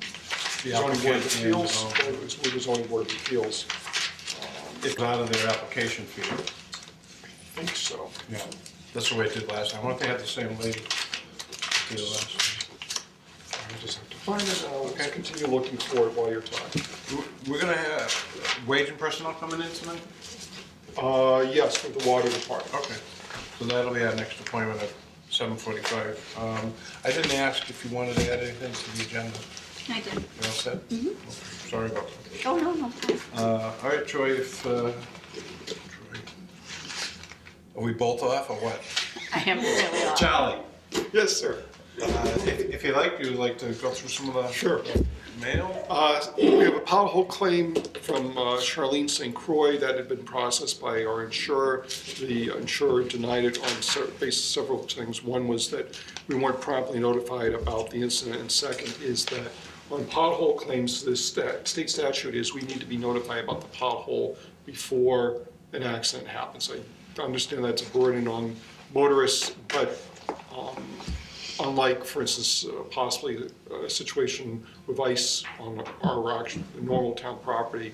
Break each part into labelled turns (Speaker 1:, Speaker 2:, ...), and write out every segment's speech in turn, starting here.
Speaker 1: the
Speaker 2: zoning board of
Speaker 1: applicant and,
Speaker 2: appeals,
Speaker 1: um,
Speaker 2: uh, it's with the zoning board of appeals,
Speaker 1: it's out of their application fee.
Speaker 2: I think so.
Speaker 1: Yeah, that's the way it did last time. I wonder if they had the same lady do the last time.
Speaker 2: I just have to find it, uh, let's continue looking for it while you're talking.
Speaker 1: W- Oh, We're gonna have wage and personnel coming in tonight?
Speaker 2: Uh, yes, for the water department.
Speaker 1: Okay, so that'll be our next appointment at seven forty-five. Um, I didn't ask if you wanted to add anything to the agenda.
Speaker 3: I did.
Speaker 1: You all set? Okay, Sorry about that.
Speaker 3: Oh, no, no. fine.
Speaker 1: Uh, all right, Troy, if, uh, Troy, are we both off or what?
Speaker 3: I am really off.
Speaker 1: Charlie,
Speaker 2: Yes, sir.
Speaker 1: uh, if, if you like, you'd like to go through some of the.
Speaker 2: Sure.
Speaker 1: Mail?
Speaker 2: Uh, We have a pothole claim from uh, Charlene St. Croix that had been processed by our insurer. The insurer denied it on se- basis of several things. One was that we weren't promptly notified about the incident, and second is that on pothole claims, the sta- state statute is we need to be notified about the pothole before an accident happens. I understand that's a burden on motorists, but um, unlike, for instance, uh, possibly a situation with ice on our rock, normal town property,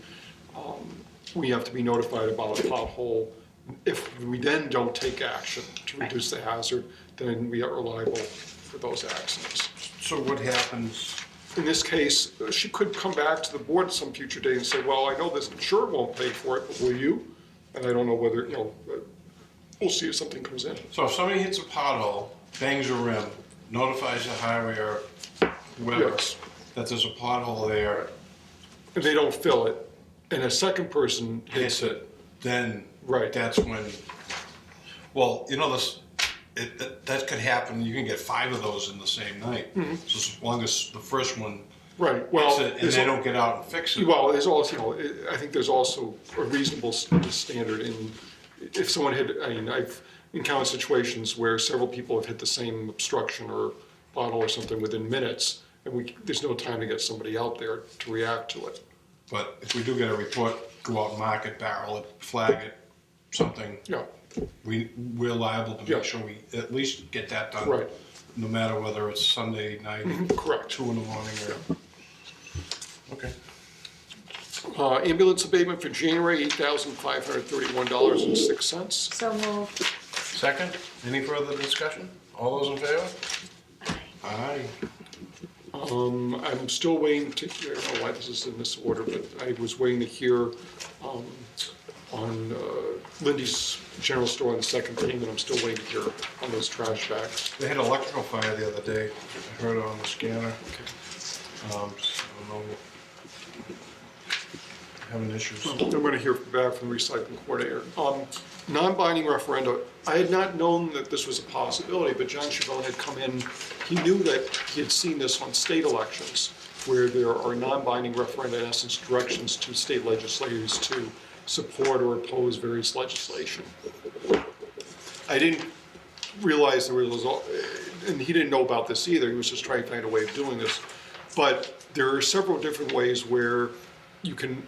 Speaker 2: um, we have to be notified about a pothole. If we then don't take action to reduce the hazard, then we are liable for those accidents.
Speaker 1: So what happens?
Speaker 2: In this case, uh, she could come back to the board at some future date and say, well, I know this insurer won't pay for it, but will you? And I don't know whether, you know, uh, we'll see if something comes in.
Speaker 1: So if somebody hits a pothole, bangs a rim, notifies the highway or whoever
Speaker 2: Yes.
Speaker 1: that there's a pothole there,
Speaker 2: If they don't fill it, and a second person
Speaker 1: hits it, then.
Speaker 2: Right.
Speaker 1: That's when, well, you know, this, it, that- that could happen, you can get five of those in the same night. So as long as the first one
Speaker 2: Right,
Speaker 1: hits
Speaker 2: well.
Speaker 1: it and
Speaker 2: there's
Speaker 1: they
Speaker 2: al-
Speaker 1: don't get out and fix it.
Speaker 2: Well, there's also, you know, I I think there's also a reasonable s- standard in, if someone had, I mean, I've encountered situations where several people have hit the same obstruction or bottle or something within minutes, and we, there's no time to get somebody out there to react to it.
Speaker 1: But if we do get a report, go out and mark it, barrel it, flag it, something,
Speaker 2: Yeah,
Speaker 1: we, we're liable to
Speaker 2: Yeah.
Speaker 1: make sure we at least get that done.
Speaker 2: Right. Mm-hmm.
Speaker 1: No matter whether it's Sunday night,
Speaker 2: correct.
Speaker 1: two in the morning or, okay.
Speaker 2: Uh, Ambulance abatement for January, $8,531.06.
Speaker 3: So moved.
Speaker 1: Second, any further discussion? All those in favor? Aye.
Speaker 2: Um, I'm still waiting to, I don't know why this is in this order, but I was waiting to hear um, on uh, Lindy's General Store on the second payment. I'm still waiting to hear on those trash bags.
Speaker 1: They had electrical fire the other day, I heard on the scanner. Um, so I don't know. Having issues.
Speaker 2: I'm going to hear back from the recycling coordinator. Um, Non-binding referenda, I had not known that this was a possibility, but John Chabon had come in, he knew that he had seen this on state elections, where there are non-binding referenda, in essence, directions to state legislators to support or oppose various legislation. I didn't realize there was, al- and he didn't know about this either, he was just trying to find a way of doing this. But there are several different ways where you can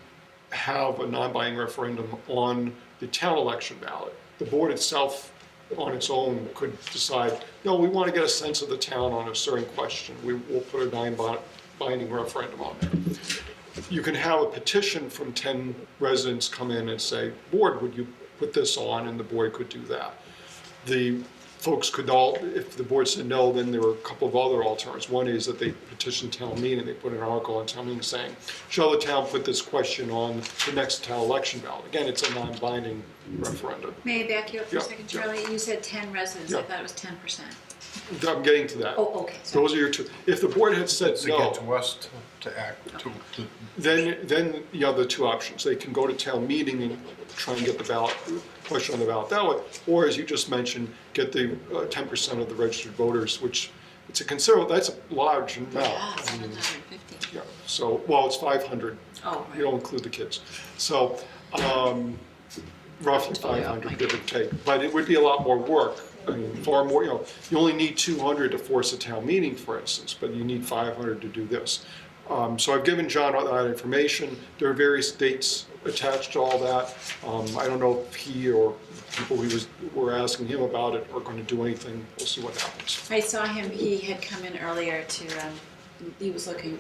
Speaker 2: have a non-binding referendum on the town election ballot. The board itself, on its own, could decide, no, we want to get a sense of the town on a certain question, we will put a non-binding referendum on there you can have a petition from 10 residents come in and say, board, would you put this on? And the board could do that. The folks could all, if the board said no, then there were a couple of other alternatives. One is that they petition town meeting, they put an article on town meeting saying, shall the town put this question on the next town election ballot? Again, it's a non-binding referendum.
Speaker 3: May I back you up for a
Speaker 2: Yeah,
Speaker 3: second,
Speaker 2: yeah.
Speaker 3: Charlie? You said 10 residents. I
Speaker 2: Yeah.
Speaker 3: thought it was 10%.
Speaker 2: I'm getting to that.
Speaker 3: Oh, okay, sorry.
Speaker 2: Those are your two. If the board had said
Speaker 1: To
Speaker 2: no.
Speaker 1: get to us to- to act, to, to,
Speaker 2: Then, then the other two options, they can go to town meeting and try and get the ballot, question on the ballot that way, or as you just mentioned, get the uh, ten percent of the registered voters, which, it's a considerable, that's a large
Speaker 3: Yeah,
Speaker 2: amount.
Speaker 3: 750.
Speaker 2: Yeah, so, well, it's five hundred,
Speaker 3: Oh,
Speaker 2: you don't
Speaker 3: right.
Speaker 2: include the kids, so, um, roughly five hundred, give or take, but it would be a lot more work. I mean, far more, you know, you only need two hundred to force a town meeting, for instance, but you need five hundred to do this. Um, so I've given John all that information, there are various dates attached to all that. Um, I don't know if he or people he was, were asking him about it are gonna do anything, we'll see what happens.
Speaker 3: I saw him, he had come in earlier to, um, he was looking